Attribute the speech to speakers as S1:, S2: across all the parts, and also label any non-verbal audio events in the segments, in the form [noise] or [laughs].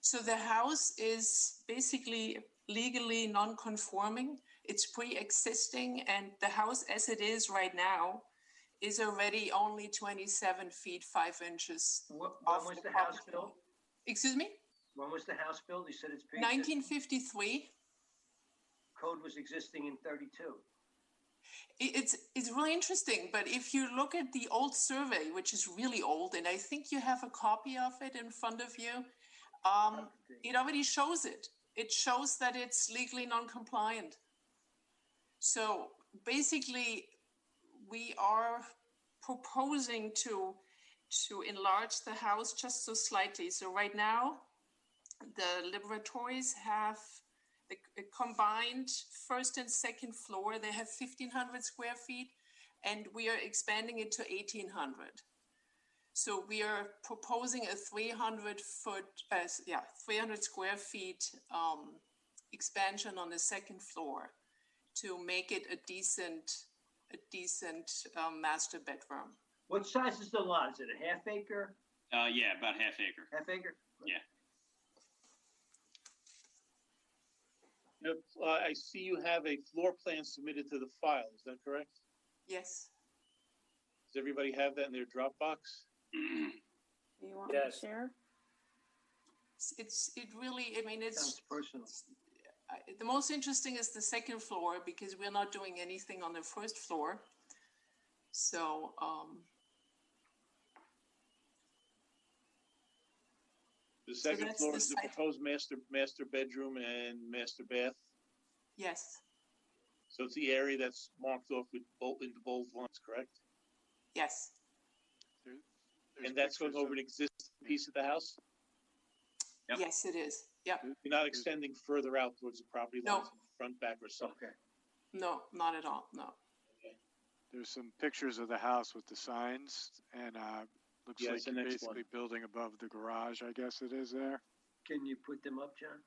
S1: So the house is basically legally non-conforming. It's pre-existing, and the house as it is right now is already only 27 feet 5 inches.
S2: When, when
S1: off
S2: was
S1: the
S2: the house
S1: property.
S2: built?
S1: Excuse me?
S2: When was the house built? You said it's pre
S1: 1953.
S2: Code was existing in thirty-two.
S1: I- It's it's really interesting, but if you look at the old survey, which is really old, and I think you have a copy of it in front of you, um, it already shows it. It shows that it's legally non-compliant. So basically, we are proposing to to enlarge the house just so slightly. So right now, the laboratories have the c- combined first and second floor. They have 1,500 square feet, and we are expanding it to 1,800. So we are proposing a 300 foot, uh, s- yeah, 300 square feet um, expansion on the second floor to make it a decent, a decent um, master bedroom.
S2: What size is the lot? Is it a half acre,
S3: Uh, yeah, about half acre. [clears throat]
S2: half acre?
S4: Yep, uh, I see you have a floor plan submitted to the file, is that correct?
S1: Yes.
S4: Does everybody have that in their Dropbox?
S5: Do you want me to
S2: Yes.
S5: share?
S1: It's- It's it really. I mean, it's
S2: Sounds personal.
S1: I- the most interesting is the second floor because we're not doing anything on the first floor. So, um,
S4: The second
S1: that's
S4: floor
S1: the
S4: is the
S1: side-
S4: proposed master, master bedroom and master bath.
S1: yes,
S4: So it's the area that's marked off with bold, in the bold lines, correct?
S1: yes,
S4: And that's going over an existing piece of the house?
S3: Yep.
S1: yes, it is. Yeah,
S4: You're not extending further out towards the property
S1: No.
S4: lines, front, back, or something?
S2: Okay.
S1: no, not at all. No.
S6: There's some pictures of the house with the signs and, uh, looks
S4: Yeah,
S6: like
S4: it's the
S6: you're
S4: next one.
S6: basically building above the garage, I guess it is there.
S2: Can you put them up, John?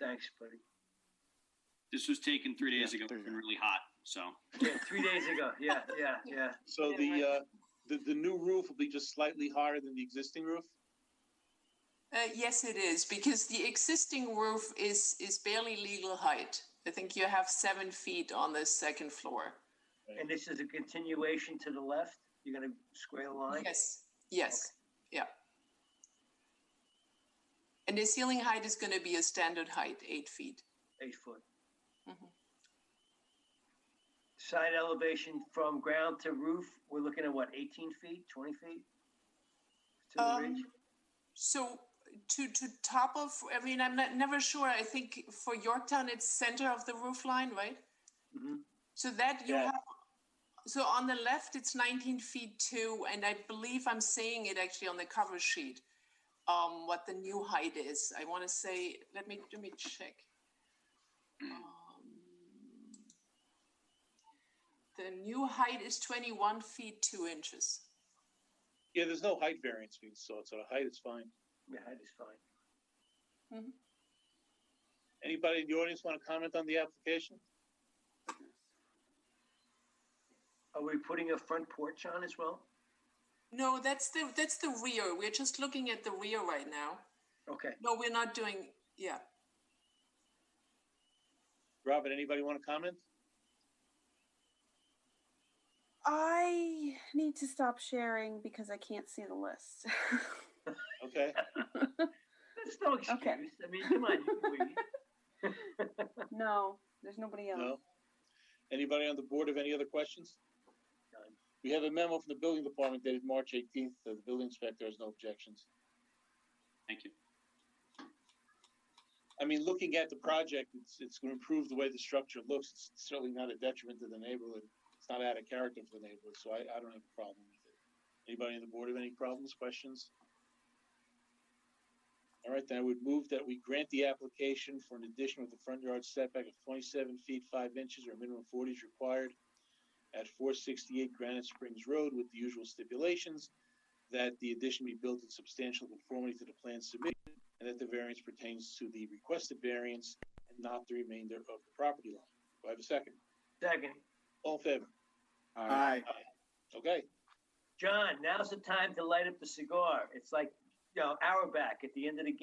S2: Thanks, buddy. [laughs]
S3: This was taken three days
S6: Yeah,
S3: ago.
S6: there you
S3: It's been
S6: go.
S3: really hot, so.
S2: Yeah, three days ago. Yeah, yeah,
S1: [laughs]
S2: yeah.
S4: So the, uh, the, the new roof will be just slightly higher than the existing roof?
S1: Uh, yes, it is because the existing roof is is barely legal height. I think you have seven feet on the second floor.
S2: And this is a continuation to the left? You're gonna square a line?
S1: Yes, yes, yeah. And the ceiling height is going to be a standard height, eight feet.
S2: Eight foot.
S1: Mhm.
S2: Side elevation from ground to roof, we're looking at what, eighteen feet, twenty feet? To the
S1: Um,
S2: ridge?
S1: So to to top of, I mean, I'm not never sure. I think for Yorktown, it's center of the roof line, right?
S2: Mhm.
S1: So that you
S4: Yeah.
S1: have. So on the left, it's 19 feet two, and I believe I'm saying it actually on the cover sheet. Um, what the new height is? I want to say. Let me let me check. Um, the new height is 21 feet two inches.
S4: Yeah, there's no height variance being sought, so the height is fine.
S2: Yeah, that is fine.
S4: Anybody in the audience want to comment on the application?
S2: Are we putting a front porch on as well?
S1: No, that's the that's the rear. We're just looking at the rear right now.
S2: Okay,
S1: No, we're not doing, yeah.
S4: Robin, anybody want to comment?
S5: I need to stop sharing because I can't see the list. [laughs]
S4: Okay.
S2: that's no excuse. I mean, come on, you can wait.
S5: no, there's nobody else.
S4: No? Anybody on the board have any other questions?
S2: None.
S4: We have a memo from the building department dated March eighteenth, the building inspector has no objections.
S3: Thank you.
S4: I mean, looking at the project, it's, it's gonna improve the way the structure looks, it's certainly not a detriment to the neighborhood. It's not out of character for the neighborhood, so I, I don't have a problem with it. Anybody on the board have any problems, questions? All right, then I would move that we grant the application for an addition with a front yard setback of twenty-seven feet, five inches, or minimum forty is required at four sixty-eight Granite Springs Road with the usual stipulations that the addition be built in substantial conformity to the plan submitted and that the variance pertains to the requested variance and not the remainder of the property line. Do I have a second?
S2: Second,
S4: All in favor?
S6: Alright,
S4: Okay,
S2: John, now's the time to light up the cigar. It's like, you know, hour back at the end of the game.